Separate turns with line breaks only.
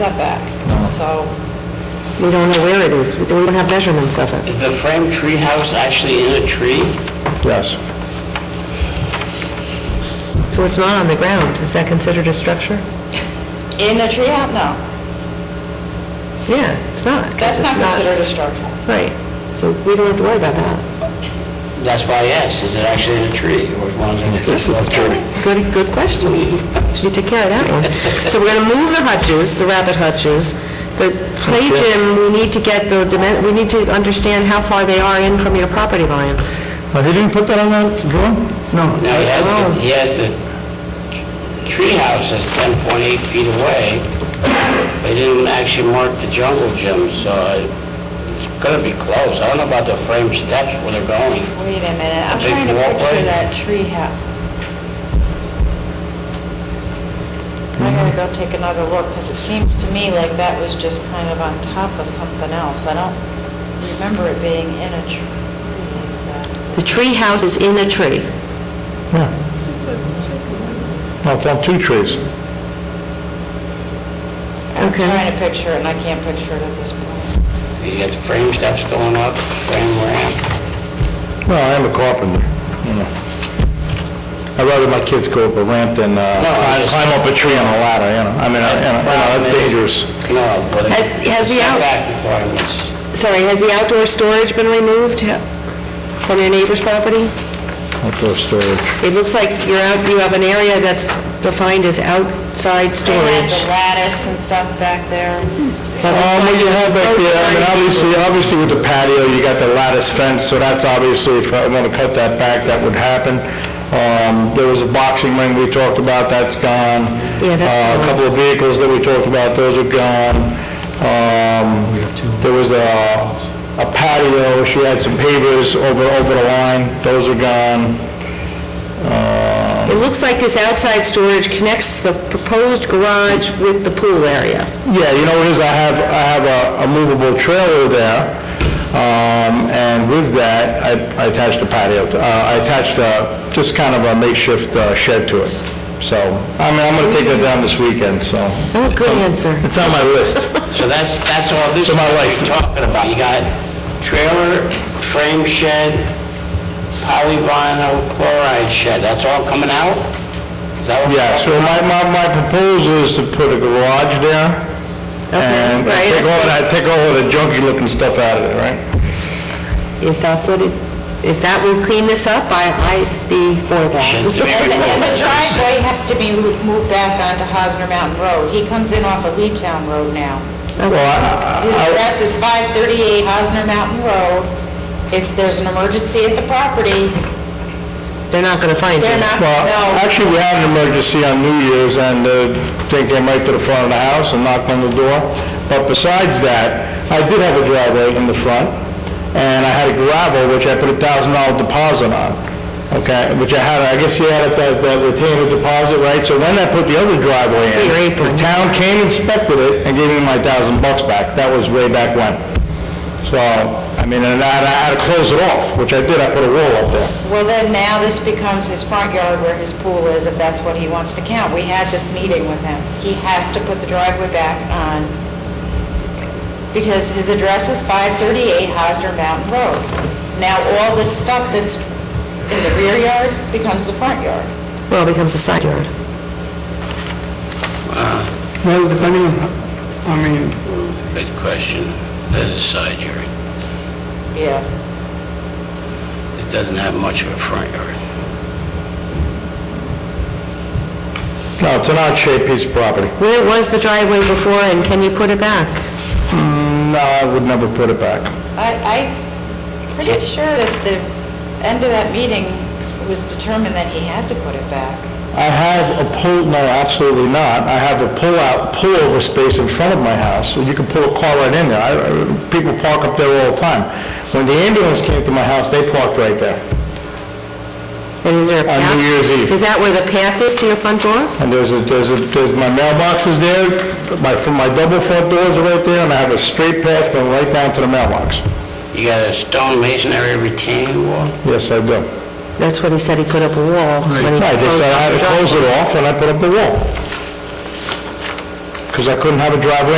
setback, so
We don't know where it is, we don't have measurements of it.
Is the frame treehouse actually in a tree?
Yes.
So it's not on the ground, is that considered a structure?
in a tree house, no,
Yeah, it's not.
that's
'cause
not
it's
considered a structure.
Right, so we don't have to worry about that.
That's why I asked, is it actually in a tree? Or as long as it's not a tree?
Good, good question. You took care of that one. So we're going to move the hutches, the rabbit hutches. The play gym, we need to get the, dimen- we need to understand how far they are in from your property lines.
Oh, he didn't put that on that drawing? No.
Now, he has the, he has the treehouse that's 10.8 feet away, but he didn't actually mark the jungle gym, so I- it's gonna be close. I don't know about the frame steps where they're going.
Wait a minute, I'm
A big
trying to
walkway?
picture that tree house. I gotta go take another look, because it seems to me like that was just kind of on top of something else. I don't remember it being in a tree exactly.
The tree house is in a tree.
Yeah. No, it's on two trees.
I'm
Okay.
trying to picture it, and I can't picture it at this point.
He has frame steps going up, frame ramp.
Well, I am a carpenter, you know. I'd rather my kids go up a ramp than uh,
No, I
climb
just-
climb up a tree on a ladder, you know. I mean, I- you know, you know, that's dangerous.
No, but the
Has- has the out-
setback requirements.
Sorry, has the outdoor storage been removed from your neighbor's property?
Outdoor storage.
It looks like you're out, you have an area that's defined as outside
They had the
storage.
lattice and stuff back there.
Um, what you have back there, I mean, obviously, obviously with the patio, you got the lattice fence, so that's obviously, if I want to cut that back, that would happen. Um, there was a boxing ring we talked about, that's gone.
Yeah, that's
Uh, A
gone.
couple of vehicles that we talked about, those are gone. Um, there was a, a patio, she had some pavers over, over the line, those are gone.
It looks like this outside storage connects the proposed garage with the pool area.
Yeah, you know, what it is, I have, I have a- a movable trailer there, um, and with that, I- I attached a patio, uh, I attached a, just kind of a makeshift uh, shed to it. So, I mean, I'm gonna take that down this weekend, so.
Oh, good answer.
It's on my list.
So that's, that's all this
So
is
my
what
wife's-
you're talking about. You got trailer, frame shed, polyvinyl chloride shed, that's all coming out? Is that what?
Yeah, so my, my, my proposal is to put a garage there, and
right,
take
I
all that, take all of the junky-looking stuff out of it, right?
If that's what it, if that will clean this up, I, I'd be for
Shouldn't be.
that.
And the- and the driveway has to be mo- moved back onto Hosner Mountain Road. He comes in off of Lee Town Road now.
Well, I-
His address is 538 Hosner Mountain Road. If there's an emergency at the property,
They're not gonna find you.
they're not,
Well,
no.
actually, we had an emergency on New Year's, and uh, they came right to the front of the house and knocked on the door. But besides that, I did have a driveway in the front, and I had a gravel, which I put a thousand dollar deposit on, okay? Which I had, I guess you had that that retainer deposit, right? So when I put the other driveway in,
Your apron.
the town came, inspected it, and gave me my thousand bucks back. That was way back when. So, I mean, and I I had to close it off, which I did, I put a wall up there.
Well, then now this becomes his front yard where his pool is, if that's what he wants to count. We had this meeting with him. He has to put the driveway back on, because his address is 538 Hosner Mountain Road. Now, all this stuff that's in the rear yard becomes the front yard.
Well, it becomes a side yard.
Well, depending, I mean,
Good question. There's a side yard.
Yeah.
It doesn't have much of a front yard.
No, it's an odd-shaped piece of property.
Where was the driveway before, and can you put it back?
No, I would never put it back.
I, I'm pretty sure that the end of that meeting it was determined that he had to put it back.
I have a pull, no, absolutely not. I have a pull-out, pullover space in front of my house, so you can pull a car right in there. I- I- People park up there all the time. When the ambulance came to my house, they parked right there,
And is there a
On
path?
New Year's Eve.
Is that where the path is to your front door?
and there's a, there's a, there's, my mailbox is there, my, from my double front doors are right there, and I have a straight path going right down to the mailbox.
You got a stone masonry retaining wall?
Yes, I do.
That's what he said, he put up a wall when he
I
closed
just, I
off the
had to
driveway.
close it off, and I put up the wall. because I couldn't have a driveway